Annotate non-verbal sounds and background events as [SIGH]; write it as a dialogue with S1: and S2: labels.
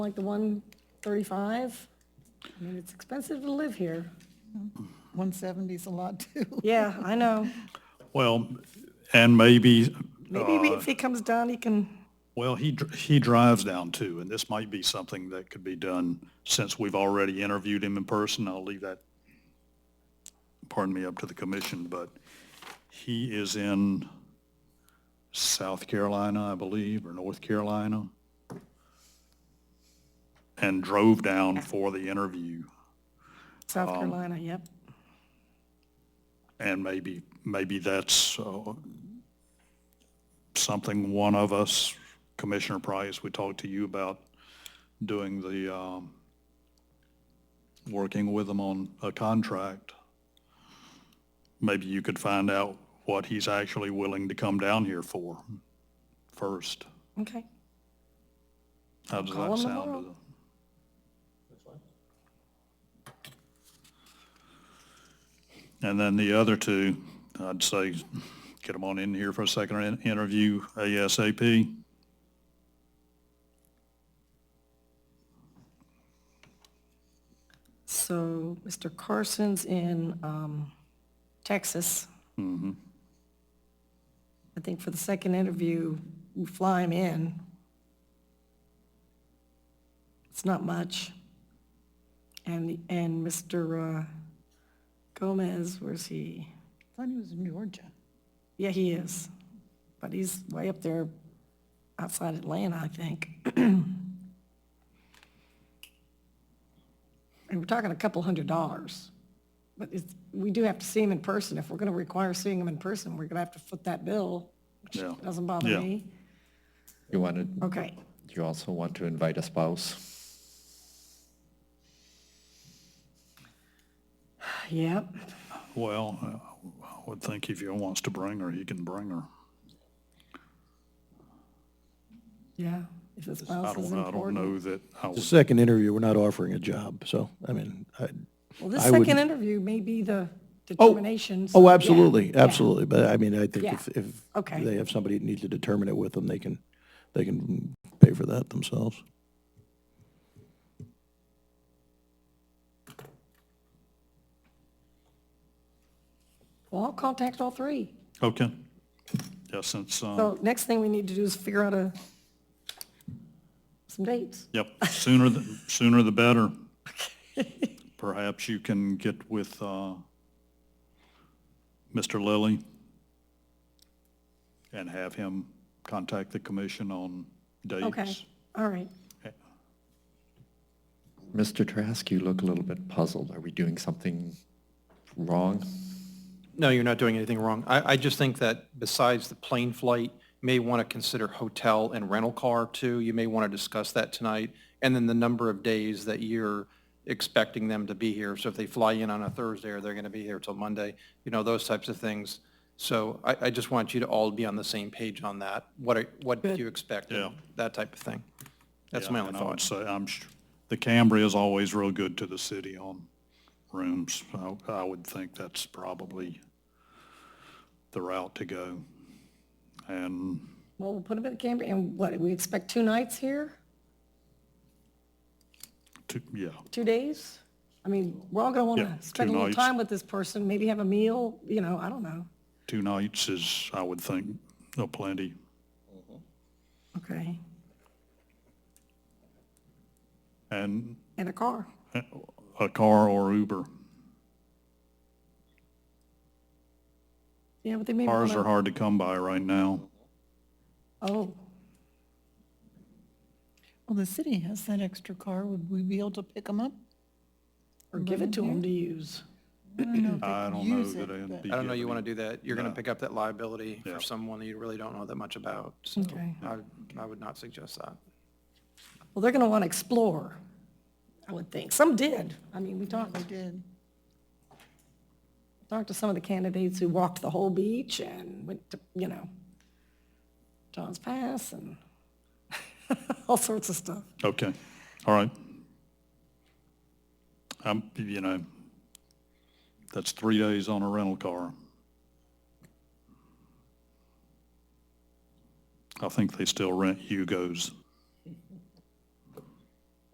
S1: like the 135? I mean, it's expensive to live here.
S2: 170's a lot too.
S1: Yeah, I know.
S3: Well, and maybe,
S1: Maybe if he comes down, he can,
S3: well, he, dr- he drives down too, and this might be something that could be done since we've already interviewed him in person. I'll leave that, pardon me, up to the commission, but he is in South Carolina, I believe, or North Carolina, and drove down for the interview.
S1: South Carolina, yep.
S3: And maybe, maybe that's uh, something one of us, Commissioner Price, we talked to you about doing the, um, working with him on a contract. Maybe you could find out what he's actually willing to come down here for first.
S1: Okay.
S3: How does
S1: Call
S3: that
S1: him
S3: sound?
S1: tomorrow.
S3: to the- And then the other two, I'd say, get them on in here for a second in- interview ASAP.
S1: So Mr. Carson's in um, Texas. I think for the second interview, we fly him in. It's not much. And, and Mr. uh, Gomez, where's he?
S2: Thought he was in Georgia.
S1: Yeah, he is. But he's way up there outside Atlanta, I think. [CLEARS THROAT] And we're talking a couple hundred dollars. But it's, we do have to see him in person. If we're going to require seeing him in person, we're going to have to foot that bill, which
S3: Yeah.
S1: doesn't bother
S3: Yeah.
S1: me.
S4: You wanted,
S1: Okay.
S4: you also want to invite a spouse?
S1: Yep.
S3: Well, uh, I would think if he wants to bring her, he can bring her.
S1: Yeah. If his
S3: I
S1: spouse is
S3: don't, I don't
S1: important.
S3: know that I
S5: The
S3: would,
S5: second interview, we're not offering a job, so, I mean, I,
S1: Well, this
S5: I would-
S1: second interview may be the determination. so-
S5: oh,
S1: yeah,
S5: absolutely,
S1: yeah.
S5: absolutely, but I mean, I think if,
S1: Yeah.
S5: if
S1: Okay.
S5: they have somebody that needs to determine it with them, they can, they can pay for that themselves.
S1: Well, I'll contact all three.
S3: okay. Yeah, Oh, since, um,
S1: So next thing we need to do is figure out a, some dates.
S3: Yep, sooner, the sooner the better. Perhaps you can get with uh, Mr. Lilly and have him contact the commission on
S1: Okay,
S3: dates.
S1: all right.
S4: Mr. Trask, you look a little bit puzzled. Are we doing something wrong?
S6: No, you're not doing anything wrong. I, I just think that besides the plane flight, you may want to consider hotel and rental car too. You may want to discuss that tonight. And then the number of days that you're expecting them to be here. So if they fly in on a Thursday, are they going to be here till Monday? You know, those types of things. So I, I just want you to all be on the same page on that. What, are- what do you expect?
S3: Yeah.
S6: That type of thing. That's
S3: Yeah,
S6: my only
S3: and I would
S6: thought.
S3: say, I'm, sh- the Cambria is always real good to the city on rooms. I I would think that's probably the route to go. And
S1: Well, we'll put them in Cambria, and what, we expect two nights here,
S3: to, yeah,
S1: two days? I mean, we're all gonna wanna
S3: Yeah, two
S1: spend a little
S3: nights.
S1: time with this person, maybe have a meal, you know, I don't know.
S3: two nights is, I would think, a plenty.
S1: Okay,
S3: And uh,
S1: and a car.
S3: a car or Uber.
S1: Yeah, but they may
S3: Cars are
S1: wanna,
S3: hard to come by right now.
S1: oh,
S2: Well, the city has that extra car. Would we be able to pick them up?
S1: or give it to them to use.
S3: I don't know that it'd be.
S6: I don't know
S3: given
S6: you want
S3: any-
S6: to do that. You're going to pick up that liability
S3: Yeah.
S6: for someone that you really don't know that much about. So
S1: Okay.
S6: I, I would not suggest that.
S1: Well, they're gonna wanna explore, I would think. Some did. I mean, we talked,
S2: They did.
S1: talked to some of the candidates who walked the whole beach and went to, you know, John's Pass and [LAUGHS] all sorts of stuff.
S3: Okay, all right. Um, you know, that's three days on a rental car. I think they still rent Hugos.